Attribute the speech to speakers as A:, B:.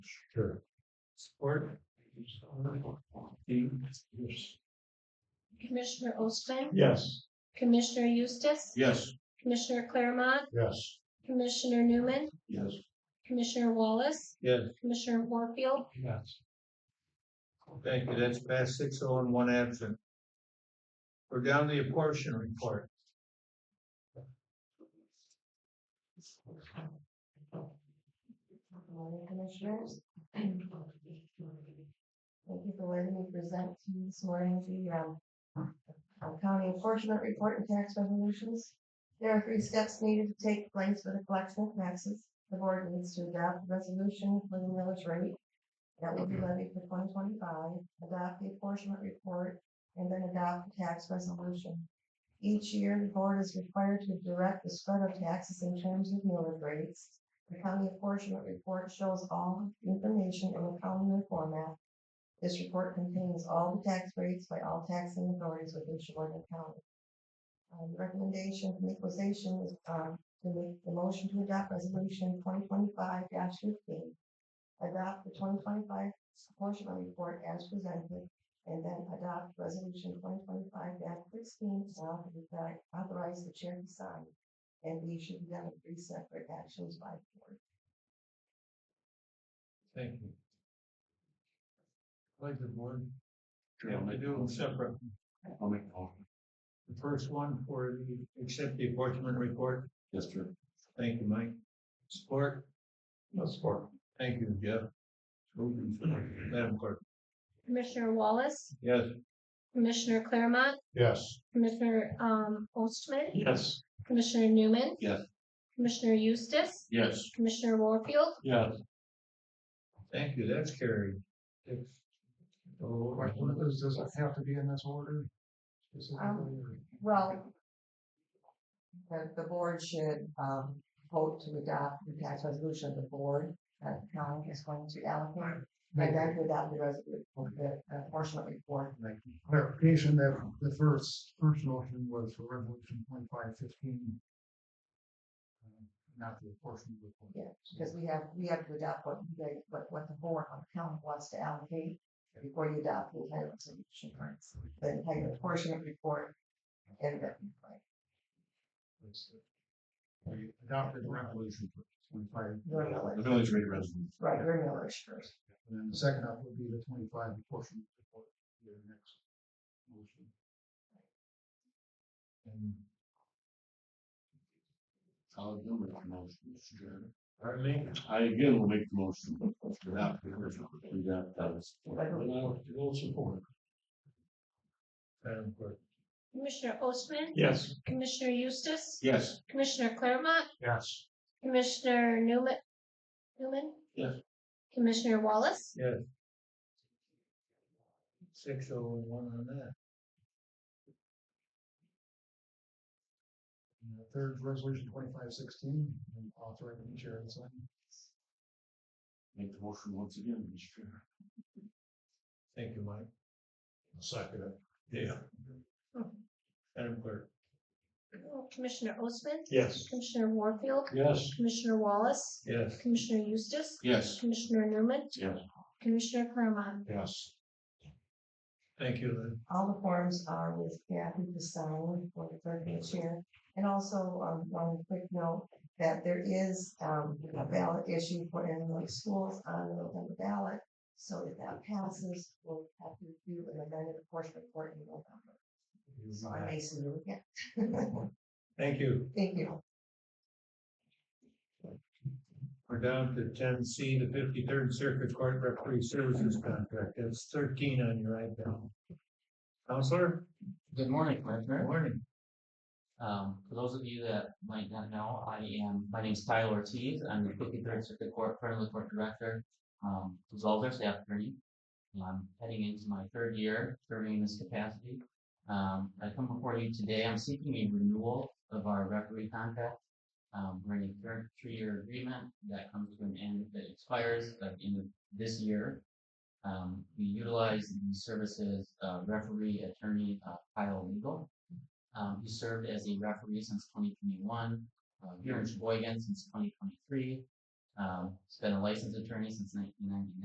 A: Sure. Support.
B: Commissioner Ostman,
A: Yes.
B: Commissioner Eustace,
A: Yes.
B: Commissioner Claremont,
A: Yes.
B: Commissioner Newman,
A: Yes.
B: Commissioner Wallace,
A: Yes.
B: Commissioner Warfield,
A: Yes. Thank you. That's passed six oh and one absent. We're down to the apportion report.
C: Morning, Commissioners. Thank you for letting me present to you this morning the um, um, county enforcement report and tax resolutions. There are three steps needed to take place for the collection of taxes. The board needs to adopt a resolution for the millage rate that will be levied for twenty twenty-five, adopt the enforcement report, and then adopt the tax resolution. Each year, the board is required to direct the spread of taxes in terms of millage rates. The county apportionment report shows all information in a columnar format. This report contains all the tax rates by all taxing authorities within Sheboygan County. Um, the recommendation from equalization is, um, to make the motion to adopt resolution twenty twenty-five fifteen. Adopt the twenty twenty-five apportionment report as presented, and then adopt resolution twenty twenty-five sixteen, now to authorize the chair to sign. And these should be done in three separate actions by the board.
A: Thank you. Like the board. Yeah, we do them separate.
D: I'll make the motion.
A: The first one for the, accept the apportionment report.
D: Yes, sir.
A: Thank you, Mike. Support.
D: No support.
A: Thank you, Jeff. Madam Clerk.
B: Commissioner Wallace,
A: Yes.
B: Commissioner Claremont,
A: Yes.
B: Commissioner um Ostman,
D: Yes.
B: Commissioner Newman.
D: Yes.
B: Commissioner Eustace,
D: Yes.
B: Commissioner Warfield,
D: Yes.
A: Thank you, that's carried. Oh, Does it have to be in this order?
C: Well, the, the board should, um, vote to adopt the tax resolution of the board that county is going to allocate. And then to adopt the resolution, the uh, apportionment report.
E: clarification that the first, first motion was for resolution twenty-five fifteen. Uh, Not the portion report.
C: Yeah, because we have, we have to adopt what you guys, what, what the board on county wants to allocate before you adopt the entire resolution, right? The entire apportionment report and the,
E: We adopted the resolution for twenty-five,
C: your
D: The
C: millage,
D: village rate resolution.
C: right, your millage first.
E: and then the second up would be the twenty-five portion report. Your next motion.
A: And,
D: I'll do make the motion, Mr. Chairman.
A: Pardon me?
D: I again will make the motion. to adopt the original, to adopt that support.
C: But I
D: will support.
A: Madam Clerk.
B: Commissioner Ostman,
D: Yes.
B: Commissioner Eustace,
D: Yes.
B: Commissioner Claremont,
A: Yes.
B: Commissioner Newman. Newman?
D: Yes.
B: Commissioner Wallace,
A: Six oh and one on that.
E: And the third resolution twenty-five sixteen, and authorizing the chair to sign.
D: Make the motion once again, Mr. Chairman.
A: Thank you, Mike. Second it. Yeah. Madam Clerk.
B: Commissioner Ostman,
A: Yes.
B: Commissioner Warfield,
D: Yes.
B: Commissioner Wallace,
A: Yes.
B: Commissioner Eustace,
D: Yes.
B: Commissioner Newman,
D: Yes.
B: Commissioner Claremont,
A: Yes. Thank you, Lynn.
C: All the forms are with Kathy to sign for the third chair. And also, um, one quick note, that there is, um, a ballot issue for Illinois schools on the November ballot. So if that passes, we'll have to do an amended apportionment report in November. So I may see you again.
A: Thank you.
C: Thank you.
A: We're down to ten C, the fifty-third Circuit Court Referee Services Contract. That's thirteen on your iPad. Counselor?
F: Good morning,
A: Good
F: Commissioner.
A: Morning.
F: Um, for those of you that might not know, I am, my name's Kyle Ortiz. I'm the fifty-third Circuit Court, currently Court Director, um, Zolder, staff attorney. And I'm heading into my third year serving in this capacity. Um, I come before you today. I'm seeking a renewal of our referee contract. Um, we're in a third three-year agreement that comes to an end, that expires at the end of this year. Um, we utilize the services, uh, referee attorney, uh, Kyle Legal. Um, he served as a referee since twenty twenty-one, uh, here in Sheboygan since twenty twenty-three. Um, has been a licensed attorney since nineteen ninety-nine.